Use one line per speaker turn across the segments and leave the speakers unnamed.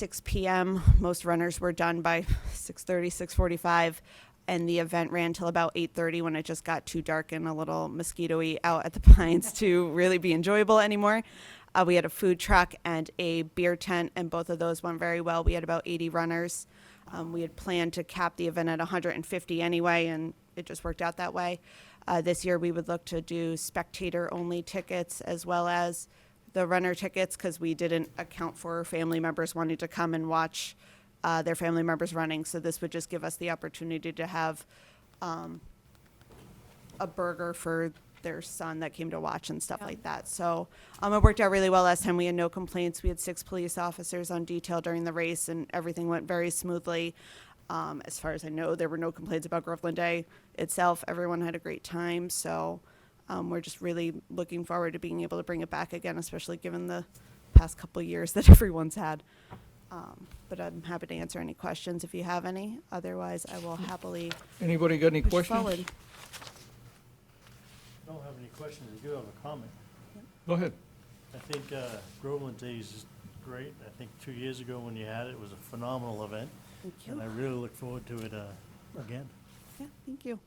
6 p.m. Most runners were done by 6:30, 6:45, and the event ran till about 8:30 when it just got too dark and a little mosquito-y out at the pines to really be enjoyable anymore. Uh, we had a food truck and a beer tent, and both of those went very well. We had about 80 runners. Um, we had planned to cap the event at 150 anyway, and it just worked out that way. Uh, this year, we would look to do spectator-only tickets as well as the runner tickets because we didn't account for family members wanting to come and watch uh, their family members running. So this would just give us the opportunity to have a burger for their son that came to watch and stuff like that. So um, it worked out really well last time. We had no complaints. We had six police officers on detail during the race, and everything went very smoothly. Um, as far as I know, there were no complaints about Groveland Day itself. Everyone had a great time. So um, we're just really looking forward to being able to bring it back again, especially given the past couple years that everyone's had. Um, but I'm happy to answer any questions if you have any. Otherwise, I will happily
Anybody got any
push
questions?
forward.
I don't have any questions, I do have a comment.
Go ahead.
I think uh, Groveland Days is great. I think two years ago when you had it, it was a phenomenal event.
Thank you.
And I really look forward to it uh, again.
Yeah, thank you.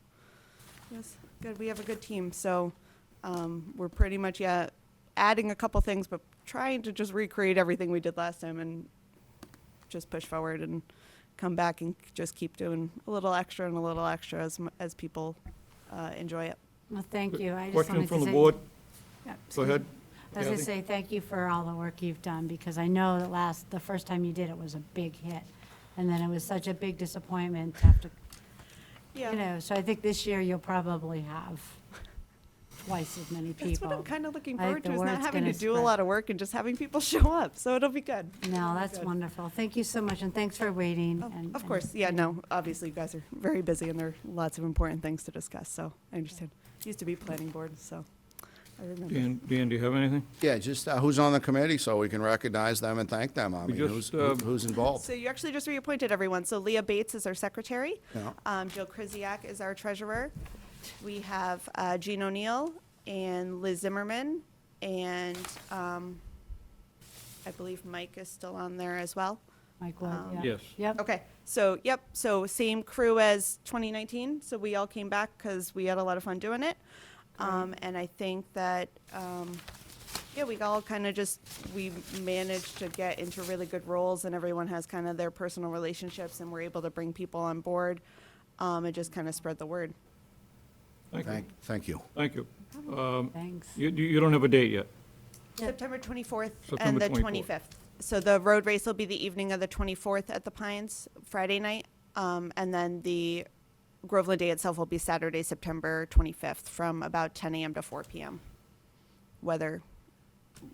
Yes, good, we have a good team, so um, we're pretty much, yeah, adding a couple things, but trying to just recreate everything we did last time and just push forward and come back and just keep doing a little extra and a little extra as, m- as people uh, enjoy it.
Well, thank you. I just
Question
wanted to
from the
say-
board?
Yeah,
Go ahead.
As I
Kathy.
say, thank you for all the work you've done, because I know that last, the first time you did it was a big hit. And then it was such a big disappointment to have to, you know, so I think this year you'll probably have twice as many people.
That's what I'm kind of looking
I
forward
think
to,
the
is not
word's
having to
gonna
do a
spread.
lot of work and just having people show up, so it'll be good.
No, that's wonderful. Thank you so much, and thanks for waiting.
Oh,
and-
Of
and-
course, yeah, no, obviously you guys are very busy and there are lots of important things to discuss, so I understand. Used to be planning board, so I remember.
Dan, Dan, do you have anything?
Yeah, just uh, who's on the committee so we can recognize them and thank them. I
We
mean,
just,
who's, who-
um,
who's involved?
So you actually just reappointed everyone. So Leah Bates is our secretary.
Yeah.
Um, Jill Krzyjak is our treasurer. We have uh, Gene O'Neill and Liz Zimmerman, and um, I believe Mike is still on there as well.
Mike Wood,
Um,
yeah.
Yes.
Yep.
Okay, so, yep, so same crew as 2019, so we all came back because we had a lot of fun doing it. Um, and I think that, um, yeah, we all kind of just, we managed to get into really good roles and everyone has kind of their personal relationships and we're able to bring people on board, um, and just kind of spread the word.
Thank you.
Thank, thank you.
Thank you. Um,
Thanks.
You, you you don't have a date yet?
Yeah.
September 24th and
September
the
24th.
25th. So the road race will be the evening of the 24th at the Pines, Friday night. Um, and then the Groveland Day itself will be Saturday, September 25th from about 10 a.m. to 4 p.m. Weather,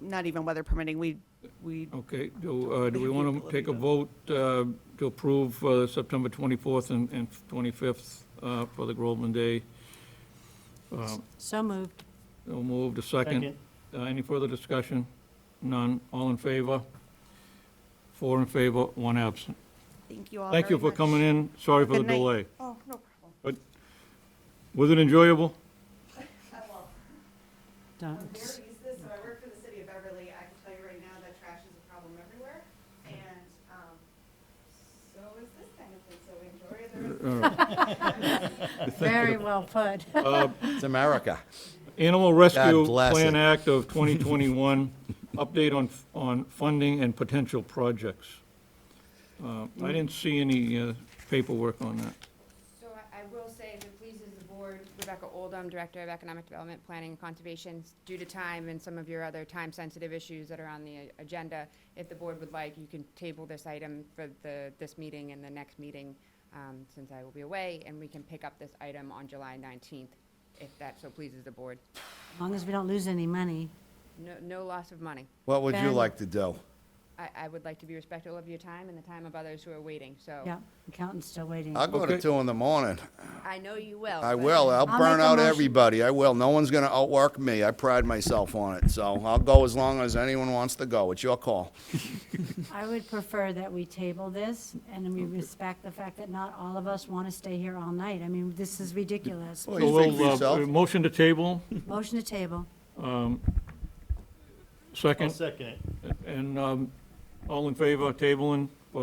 not even weather permitting, we, we,
Okay, do, uh, do we
have
want
people
to
if
take a
you
vote uh, to approve uh, September 24th and and 25th uh, for the Groveland Day?
So moved.
We'll move to second.
Second.
Uh, Any further discussion? None. All in favor? Four in favor, one absent.
thank you all
Thank you
very
for
much.
coming in. Sorry for the
Good night.
delay.
Oh, no problem.
Was it enjoyable?
I'm very
Don't.
used to this, so I work for the city of Beverly. I can tell you right now that trash is a problem everywhere. And, um, so is this kind of thing, so enjoy the rest of
All right.
Very well put.
It's America.
Animal Rescue
God bless
Plan
it.
Act of 2021, update on, on funding and potential projects. Uh, I didn't see any uh, paperwork on that.
So I I will say, if it pleases the board, Rebecca Oldham, Director of Economic Development, Planning and Conservation, due to time and some of your other time-sensitive issues that are on the uh, agenda, if the board would like, you can table this item for the, this meeting and the next meeting, um, since I will be away, and we can pick up this item on July 19th, if that so pleases the board.
As long as we don't lose any money.
No, no loss of money.
What would you
Ben.
like to do?
I, I would like to be respectful of your time and the time of others who are waiting,
Oh.
so.
Yep, accountant's still waiting.
I'll go to
Okay.
two in the morning.
I know you will.
I
but-
will.
I'll
I'll burn
make a
out
motion.
everybody. I will. No one's gonna outwork me. I pride myself on it. So I'll go as long as anyone wants to go. It's your call.
I would prefer that we table this, and we respect the fact that not all of us want to stay here all night. I mean, this is ridiculous.
Well,
So
Oh, you speak for
we'll, uh,
yourself.
motion to table,
Motion to table.
I'll
second,
second it.
and um, All in favor, tabling?